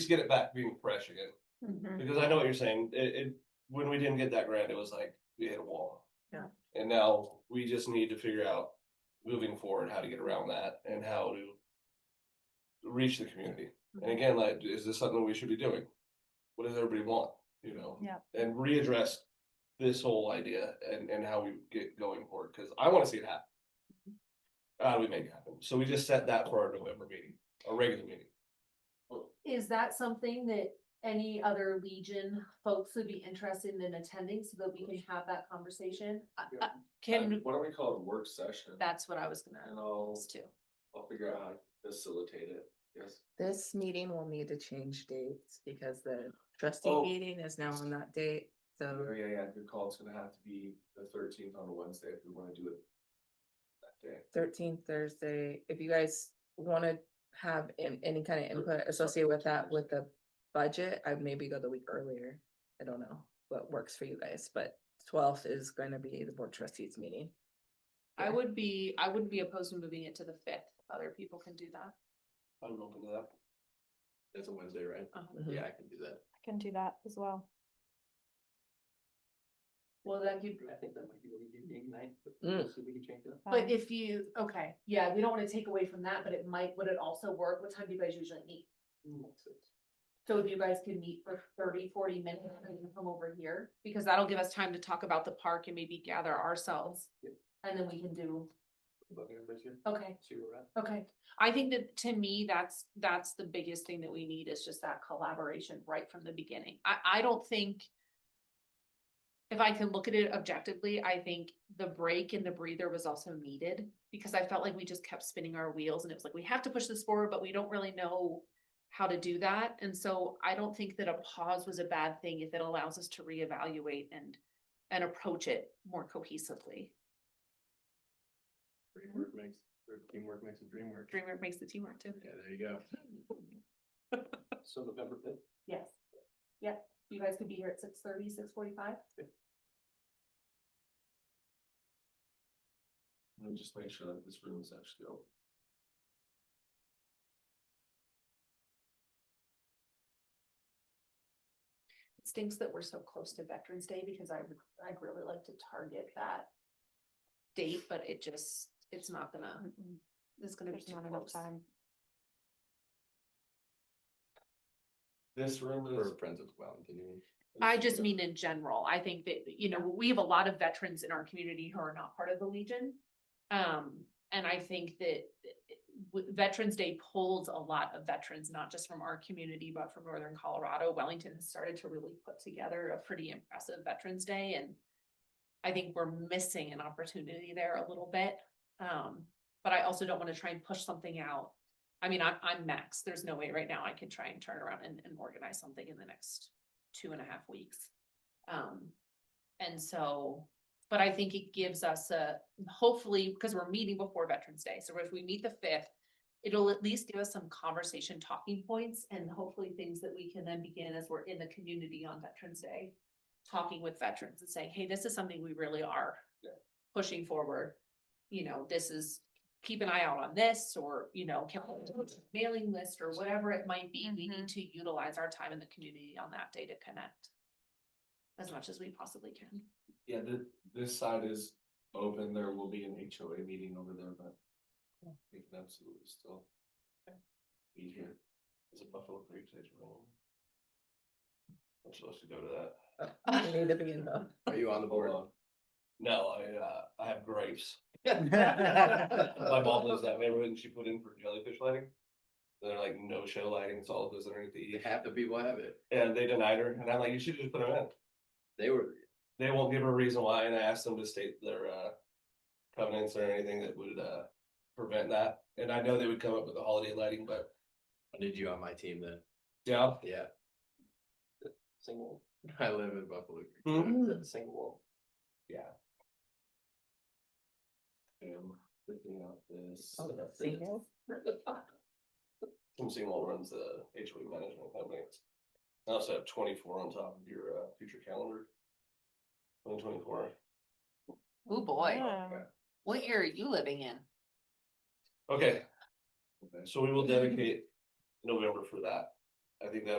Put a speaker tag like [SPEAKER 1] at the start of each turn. [SPEAKER 1] least get it back being fresh again,
[SPEAKER 2] Mm-hmm.
[SPEAKER 1] because I know what you're saying, it, it, when we didn't get that grant, it was like, we hit a wall.
[SPEAKER 2] Yeah.
[SPEAKER 1] And now we just need to figure out, moving forward, how to get around that and how to. Reach the community, and again, like, is this something we should be doing? What does everybody want, you know?
[SPEAKER 2] Yeah.
[SPEAKER 1] And readdress this whole idea and, and how we get going for it, because I wanna see it happen.
[SPEAKER 2] Mm-hmm.
[SPEAKER 1] How do we make it happen? So we just set that for our November meeting, our regular meeting.
[SPEAKER 3] Is that something that any other Legion folks would be interested in attending so that we can have that conversation? I-
[SPEAKER 2] Uh,
[SPEAKER 3] I-
[SPEAKER 2] Can,
[SPEAKER 4] Why don't we call it a work session?
[SPEAKER 3] That's what I was gonna
[SPEAKER 4] And I'll,
[SPEAKER 3] ask too.
[SPEAKER 4] I'll figure out how to facilitate it, yes.
[SPEAKER 5] This meeting will need to change dates because the trustee
[SPEAKER 4] Oh.
[SPEAKER 5] meeting is now on that date, so
[SPEAKER 4] Oh, yeah, yeah, good call, it's gonna have to be the thirteenth on a Wednesday if we wanna do it. That day,
[SPEAKER 5] thirteenth Thursday, if you guys wanna have an- any kind of input associated with that, with the budget, I'd maybe go the week earlier. I don't know what works for you guys, but twelfth is gonna be the board trustees meeting.
[SPEAKER 2] I would be, I wouldn't be opposed to moving it to the fifth, if other people can do that.
[SPEAKER 1] I'm open to that.
[SPEAKER 4] that's a Wednesday, right?
[SPEAKER 2] Um,
[SPEAKER 5] Mhm.
[SPEAKER 4] Yeah, I can do that.
[SPEAKER 6] can do that as well.
[SPEAKER 3] Well, that give,
[SPEAKER 4] I think that might be what we do, ignite, but
[SPEAKER 5] we'll
[SPEAKER 4] see if we can change that.
[SPEAKER 6] Um,
[SPEAKER 3] but if you, okay, yeah, we don't wanna take away from that, but it might, would it also work? What time do you guys usually meet?
[SPEAKER 4] Mm,
[SPEAKER 3] So if you guys could meet for 30, 40 minutes and then come over here,
[SPEAKER 2] Because that'll give us time to talk about the park and maybe gather ourselves.
[SPEAKER 3] and then we can do, okay,
[SPEAKER 4] See where we're at.
[SPEAKER 3] okay.
[SPEAKER 2] I think that to me, that's, that's the biggest thing that we need is just that collaboration right from the beginning. I, I don't think. If I can look at it objectively, I think the break and the breather was also needed because I felt like we just kept spinning our wheels and it was like, we have to push this forward, but we don't really know. How to do that. And so I don't think that a pause was a bad thing if it allows us to reevaluate and, and approach it more cohesively.
[SPEAKER 4] Dream work makes, or teamwork makes a dream work.
[SPEAKER 2] Dreamer makes the team work too.
[SPEAKER 4] Yeah, there you go. So November fifth.
[SPEAKER 3] Yes. Yeah, you guys could be here at six thirty, six forty-five?
[SPEAKER 4] Let me just make sure that this room is actually open.
[SPEAKER 3] It stinks that we're so close to Veterans Day because I, would- I'd really like to target that.
[SPEAKER 2] date, but it just, it's not gonna, it's gonna be
[SPEAKER 6] There's
[SPEAKER 2] too
[SPEAKER 6] not enough
[SPEAKER 2] close.
[SPEAKER 6] time.
[SPEAKER 4] This room is. For Friends of Valentine.
[SPEAKER 2] I just mean in general, I think that, you know, we have a lot of veterans in our community who are not part of the Legion. Um, and I think that uh, w- Veterans Day pulls a lot of veterans, not just from our community, but from Northern Colorado. Wellington has started to really put together a pretty impressive Veterans Day and I think we're missing an opportunity there a little bit. Um, but I also don't want to try and push something out. I mean, I'm, I'm max. There's no way right now I can try and turn around and, and organize something in the next two and a half weeks. Um, and so, but I think it gives us a, hopefully, because we're meeting before Veterans Day, so if we meet the fifth. It'll at least give us some conversation talking points and hopefully things that we can then begin as we're in the community on Veterans Day. Talking with veterans and saying, hey, this is something we really are
[SPEAKER 1] Yeah.
[SPEAKER 2] pushing forward. You know, this is, keep an eye out on this, or, you know, can we do a mailing list or whatever it might be. We need to utilize our time in the community on that day to connect. As much as we possibly can.
[SPEAKER 4] Yeah, the, this side is open, there will be an HOA meeting over there, but we can absolutely still be here.
[SPEAKER 1] Is it Buffalo Creek Station Roll? I'm supposed to go to that.
[SPEAKER 5] We Need to be in the,
[SPEAKER 4] Are you on the board?
[SPEAKER 1] No, I, uh, I have grapes. My
[SPEAKER 4] My
[SPEAKER 1] mom lives that neighborhood and she put in for jellyfish lighting. They're like no show lighting, it's all of those underneath the eaves.
[SPEAKER 4] Half the people have it,
[SPEAKER 1] And they denied her and I'm like, you should just put them in.
[SPEAKER 4] they were,
[SPEAKER 1] They won't give her a reason why and I asked them to state their, uh, covenants or anything that would, uh, prevent that. And I know they would come up with the holiday lighting, but
[SPEAKER 7] I need you on my team then.
[SPEAKER 1] yeah.
[SPEAKER 7] Yeah,
[SPEAKER 4] single,
[SPEAKER 7] I live in Buffalo. Creek.
[SPEAKER 1] Hmm.
[SPEAKER 4] single.
[SPEAKER 1] Yeah.
[SPEAKER 4] I'm picking out this.
[SPEAKER 5] oh, the singles?
[SPEAKER 1] Tim Seymour runs the HOA management company. I also have twenty-four on top of your uh, future calendar. Twenty twenty-four.
[SPEAKER 2] Oh,
[SPEAKER 6] Yeah.
[SPEAKER 2] What year are you living in?
[SPEAKER 1] Okay,
[SPEAKER 4] Okay.
[SPEAKER 1] so we will dedicate November for that. I think that